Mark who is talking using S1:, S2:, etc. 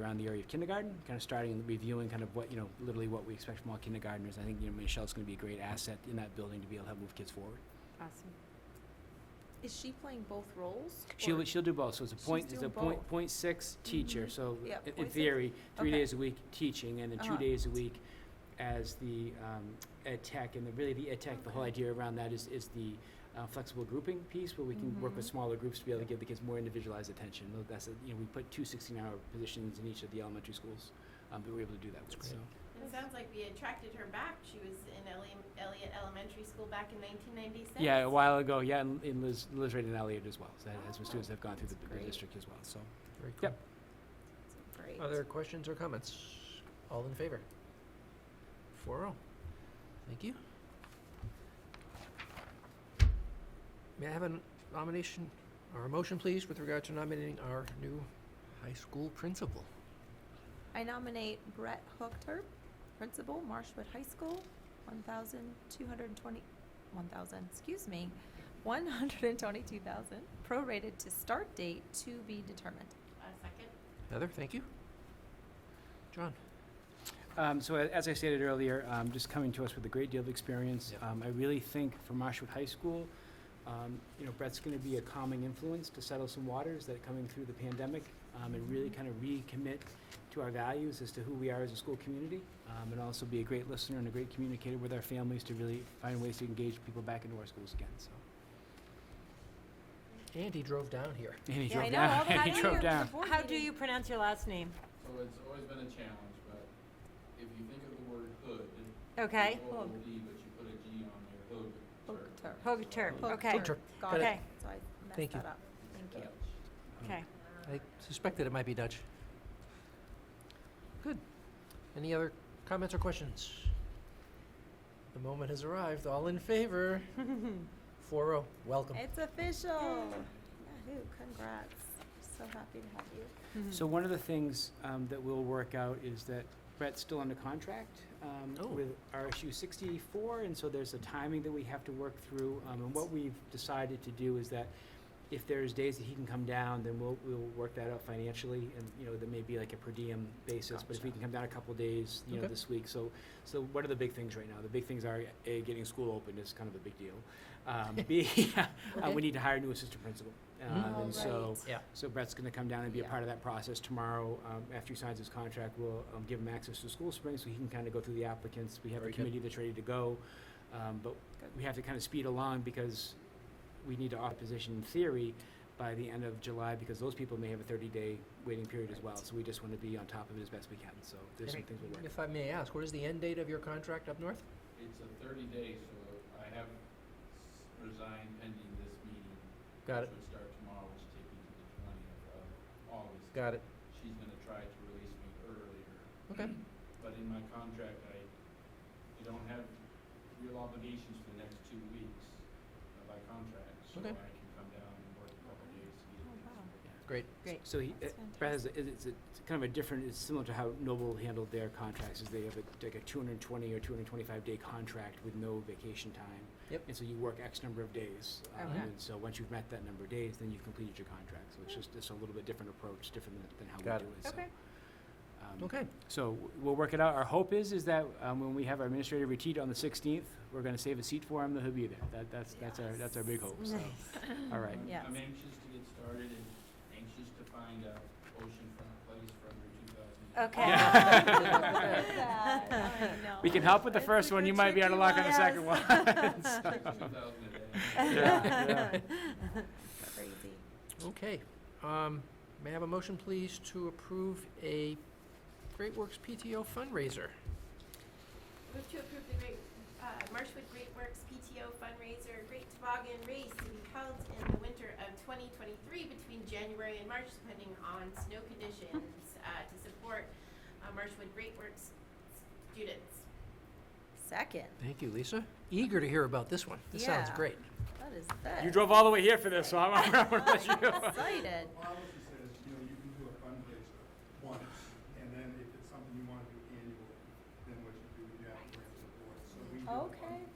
S1: around the area of kindergarten, kind of starting and reviewing kind of what, you know, literally what we expect from all kindergartners. I think, you know, Michelle's going to be a great asset in that building to be able to help move kids forward.
S2: Awesome.
S3: Is she playing both roles?
S1: She'll,
S3: or-
S1: she'll do both, so it's a
S3: She's
S1: point, it's a
S3: doing
S1: point,
S3: both.
S1: point six teacher,
S3: Mhm.
S1: so i-
S3: Yeah,
S1: in
S3: point six.
S1: theory, three
S3: Okay.
S1: days a week teaching, and then two
S3: Uh-huh.
S1: days a week as the, um, ed tech, and the, really the ed tech, the whole
S3: Okay.
S1: idea around that is, is the, uh, flexible grouping piece, where we can work with
S3: Mhm.
S1: smaller groups to be able to give the kids more individualized attention, Though that's, a- you know, we put two sixteen-hour positions in each of the elementary schools, um, that we're able to do that with, so.
S4: And It sounds like we attracted her back. She was in Elli- Elliott Elementary School back in 1996.
S1: Yeah, a while ago, yeah, and and Liz, Liz Ray and Elliot as well, so that has some students that have gone through the,
S3: That's
S1: the
S3: great.
S1: district as well, so.
S5: Very
S1: Yep.
S3: Great.
S5: Other questions or comments? All in favor? Four oh. Thank you. May I have a nomination or a motion, please, with regard to nominating our new high school principal?
S3: I nominate Brett Hookter, principal, Marshwood High School, one thousand two hundred and twenty, one thousand, excuse me, one hundred and twenty-two thousand, prorated to start date to be determined.
S4: A second.
S5: Heather, thank you. John?
S1: Um, so a- as I stated earlier, um, just coming to us with a great deal of experience.
S5: Yep.
S1: Um, I really think for Marshwood High School, um, you know, Brett's going to be a calming influence to settle some waters that are coming through the pandemic um, and really kind of recommit to our values as to who we are as a school community, um, and also be a great listener and a great communicator with our families to really find ways to engage people back into our schools again. So,
S5: And he drove down here.
S1: and he
S3: Yeah,
S1: drove
S3: I know,
S1: down.
S3: all the-
S1: and
S3: how
S1: he
S3: do
S1: drove
S3: you-
S1: down.
S3: Board
S2: How do
S3: meeting.
S2: you pronounce your last name?
S6: So it's always been a challenge, but if you think of the word hood,
S2: Okay.
S6: it's O O D, but you put a G on there, hood.
S3: Hookter.
S2: Hogater.
S3: Hook-
S2: Okay.
S5: Hookter.
S3: Got it.
S2: Okay.
S3: So I
S5: Thank
S3: messed
S5: you.
S3: that up. Thank you.
S2: Okay.
S5: I suspected it might be Dutch. Good. Any other comments or questions? The moment has arrived. All in favor? 4 0. Welcome.
S3: It's official. Yahoo, congrats. So happy to have you.
S5: Mm-hmm.
S1: So one of the things um, that we'll work out is that Brett's still under contract um,
S5: Oh.
S1: with RSU 64, and so there's a timing that we have to work through. Um, And what we've decided to do is that if there's days that he can come down, then we'll, we'll work that out financially, and, you know, there may be like a per diem basis, but if he
S5: Gotcha.
S1: can come down a couple days, you know,
S5: Okay.
S1: this week, so, so what are the big things right now? The big things are, A, getting school open is kind of a big deal. Um, B, uh, we need to hire a new assistant principal. Um,
S5: Mm-hmm.
S3: All
S1: And so,
S3: right.
S1: so Brett's going to come down and be a
S3: Yeah.
S1: part of that process tomorrow. Um, after he signs his contract, we'll um, give him access to School Spring so he can kind of go through the applicants. We have
S5: Very
S1: a
S5: good.
S1: committee that's ready to go, um, but
S3: Good.
S1: we have to kind of speed along because we need to offer position in theory by the end of July because those people may have a 30-day waiting period as well. So we just want to be on top of it as best we can. So there's some
S5: Great.
S1: things we're working.
S5: If I may ask, what is the end date of your contract up north?
S6: It's a thirty days, so I have s- resigned pending this meeting.
S5: Got it.
S6: Which would start tomorrow, which takes me to the twentieth of August.
S5: Got it.
S6: She's gonna try to release me earlier,
S5: Okay.
S6: but in my contract, I, I don't have real obligations for the next two weeks uh, by contract. So
S5: Okay.
S6: I can come down and work a couple days to get
S3: Oh,
S6: things
S3: wow.
S6: worked out.
S5: Great.
S2: Great.
S1: So he, uh,
S3: That's
S1: Brett has, a- is- it's a- it's kind of a different, it's similar to how Noble handled their contracts, is they have a, like a two hundred and twenty or two hundred and twenty-five day contract with no vacation time.
S5: Yep.
S1: And so you work X number of days, um,
S2: Okay.
S1: and so once you've met that number of days, then you've completed your contract, so it's just, it's a little bit different approach, different than- than how
S5: Got
S1: we do it, so.
S2: Okay.
S1: um,
S5: Okay.
S1: So w- we'll work it out, our hope is, is that, um, when we have our administrative retreat on the sixteenth, we're gonna save a seat for him, that he'll be there, that, that's, that's our, that's our big hope, so, all right.
S6: I'm-
S3: Yes.
S6: I'm anxious to get started and anxious to find a oceanfront place for under two
S3: Oh,
S2: Okay.
S6: thousand.
S3: we don't do that. I know.
S1: We can help with the
S3: It's
S1: first
S3: like
S1: one,
S3: a
S1: you might be out of
S3: tricky
S1: luck on the
S3: one.
S1: second one.
S6: Two thousand a day.
S1: Yeah, yeah.
S3: Crazy.
S5: Okay. Um, may I have a motion, please, to approve a Great Works PTO fundraiser?
S4: Move to approve the Great, uh, Marshwood Great Works PTO fundraiser, Great Toboggan Race to be held in the winter of 2023 between January and March, depending on snow conditions, uh, to support uh, Marshwood Great Works students.
S3: Second.
S5: Thank you, Lisa. Eager to hear about this one. This sounds
S3: Yeah.
S5: great.
S3: That is that.
S1: You drove all the way here for this, so I'm, I'm gonna let you
S3: I'm
S1: go.
S3: excited.
S7: Policy says, you know, you can do a fundraiser once, and then if it's something you want to do annually, then what you do, you have to bring it to the board. So we do a
S3: Okay.